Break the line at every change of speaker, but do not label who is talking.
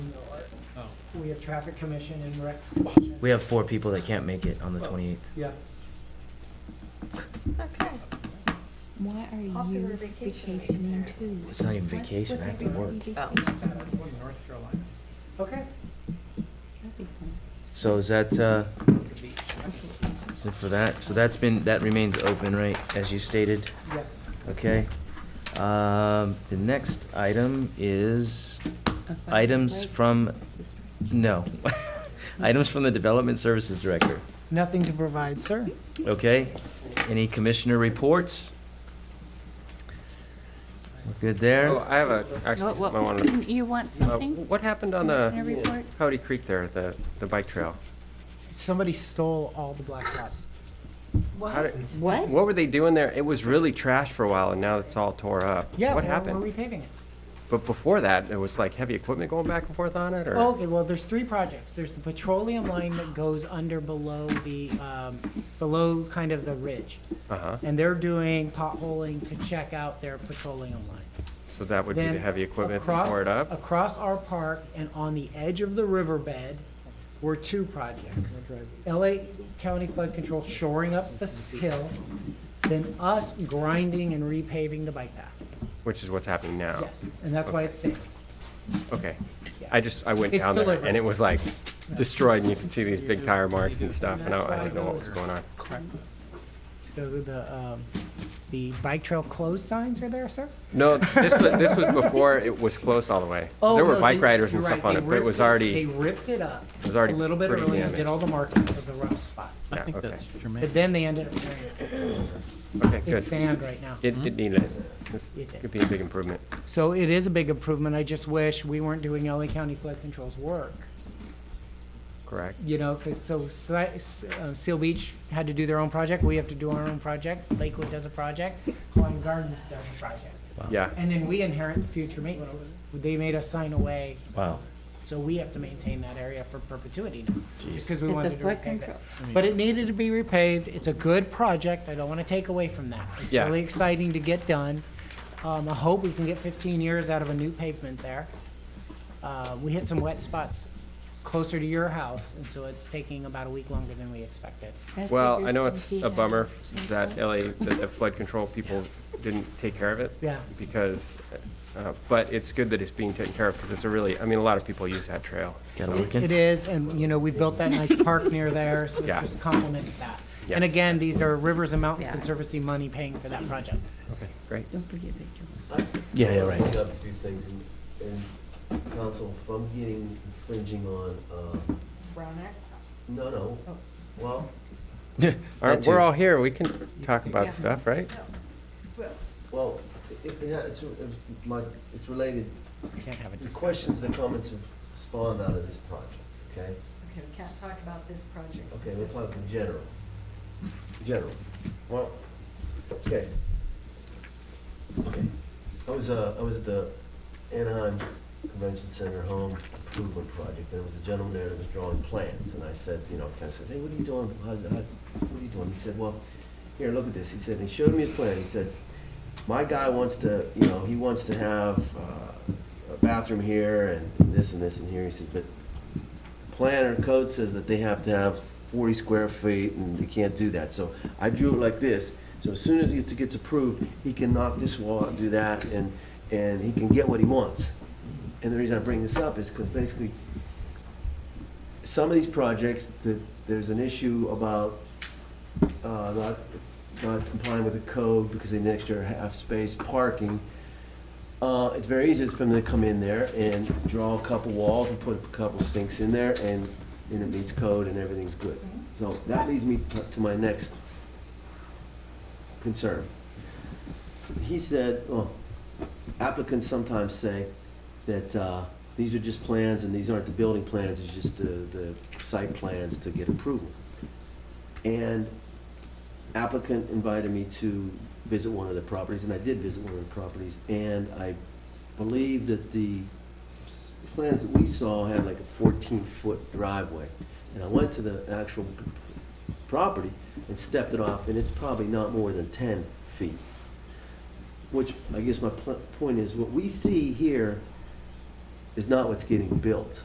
we have traffic commission and recs commission.
We have four people that can't make it on the
Oh.
twenty-eighth.
Yeah,
Okay.
Why are
Popular
you
vacation week
vacationing
there.
too?
It's not even
What-
vacation,
what
I have to
happened
work.
you
Oh.
vacationed?
okay.
That'd be fun.
So is that, uh, is it for that? So that's been, that remains open, right, as you stated?
Yes.
Okay. Um, the next item is
A fun
items
break.
from,
Just-
no. Items from the Development Services Director.
Nothing to provide, sir.
Okay, any commissioner reports? We're good
Oh,
there?
I have a, actually,
What- what-
something I wanted to-
You want
uh,
something?
what happened on
Commissioner
the
report?
Cody Creek there, the, the bike trail?
Somebody stole all the blacktop.
How did-
What?
What were they doing there? It was really trashed for a while, and now it's all tore up.
Yeah,
What
we're- We're
happened?
repaving it.
But before that, there was like heavy equipment going back and forth on it, or?
Oh, Okay, well, there's three projects. There's the petroleum line that goes under below the, um, below kind of the ridge.
Uh-huh,
And they're doing potholing to check out their petroleum line.
so that would be the
Then
heavy equipment that
across-
tore it up?
Across our park and on the edge of the riverbed were two projects. LA County Flood Control shoring up the hill, then us grinding and repaving the bike path.
Which is what's happening now?
Yes, and that's why it's safe.
Okay. I just, I went
It's
down there,
deliberate.
and it was like destroyed, and you can see these big tire marks and stuff, and I I didn't know what was going on.
The, the, um, the bike trail closed signs are there, sir?
No, this was, this was before it was closed all the way. 'Cause
Oh,
There were
no,
bike
they-
riders and
you're
stuff
right,
on
they
it, but it
ripped
was
They
already,
ripped it up
It was already
a little bit
pretty
early and
damaged.
did all the markings of the rough spots.
I
Yeah,
think
okay.
that's
But
dramatic.
then they ended up tearing it.
okay,
It's
good.
sand right now.
It, it needed, this
It did.
could be a big improvement.
So it is a big improvement. I just wish we weren't doing LA County Flood Control's work,
Correct.
you know, because so Si- S- uh, Seal Beach had to do their own project, we have to do our own project, Lakewood does a project, Hawaiian Gardens does a project.
Yeah,
And then we inherit the future maintenance. They made us sign away,
Wow.
so we have to maintain that area for perpetuity now, just because we
At the
wanted to
flood
repave it.
control.
But it needed to be repaved. It's a good project. I don't want to take away from that. It's
Yeah.
really exciting to get done. Um, I hope we can get fifteen years out of a new pavement there. Uh, we hit some wet spots closer to your house, and so it's taking about a week longer than we expected.
That's
well,
what
I know
you're
it's
thinking
a
of.
bummer that LA, that the flood control people didn't take care of it.
Yeah.
Because, uh, but it's good that it's being taken care of, because it's a really, I mean, a lot of people use that trail.
Gotta work
It
in.
is, and, you know, we built that nice park near there, so it
Yeah.
just complements that.
Yeah.
And again, these are Rivers and Mountains
Yeah.
Conservancy money paying for that project.
Okay, great.
Don't forget Victor.
Yeah, yeah, right.
Pick up a few things, and, and council, if I'm getting infringing on, um,
Brown Act.
no, no,
Oh.
well,
All right,
That
we're
too.
all here, we can talk
Yeah.
about stuff, right?
well, it, yeah, it's, it's like, it's related.
We Can't have it.
The questions and comments have spawned out of this project, okay?
Okay, we can't talk about this project
Okay, we're
specifically.
talking general. General. Well, okay. Okay. I was, uh, I was at the Anaheim Convention Center Home Improvement Project. There was a gentleman there that was drawing plans, and I said, you know, kind of said, hey, what are you doing? How's- how- What are you doing? He said, well, here, look at this. He said, and he showed me his plan. He said, my guy wants to, you know, he wants to have uh, a bathroom here and this and this and here. He said, but plan or code says that they have to have forty square feet, and they can't do that, so I drew it like this, so as soon as it gets approved, he can knock this wall out and do that, and, and he can get what he wants. And the reason I bring this up is because basically, some of these projects, that, there's an issue about, uh, not, not complying with the code because they need extra half space parking, uh, it's very easy, it's for them to come in there and draw a couple walls and put a couple sinks in there and, and it meets code and everything's good. So that leads me to- to my next concern. He said, well, applicants sometimes say that, uh, these are just plans and these aren't the building plans, it's just the, the site plans to get approval. And applicant invited me to visit one of the properties, and I did visit one of the properties, and I believe that the s- plans that we saw had like a fourteen-foot driveway. And I went to the actual p- property and stepped it off, and it's probably not more than ten feet. Which, I guess my pl- point is, what we see here is not what's getting built.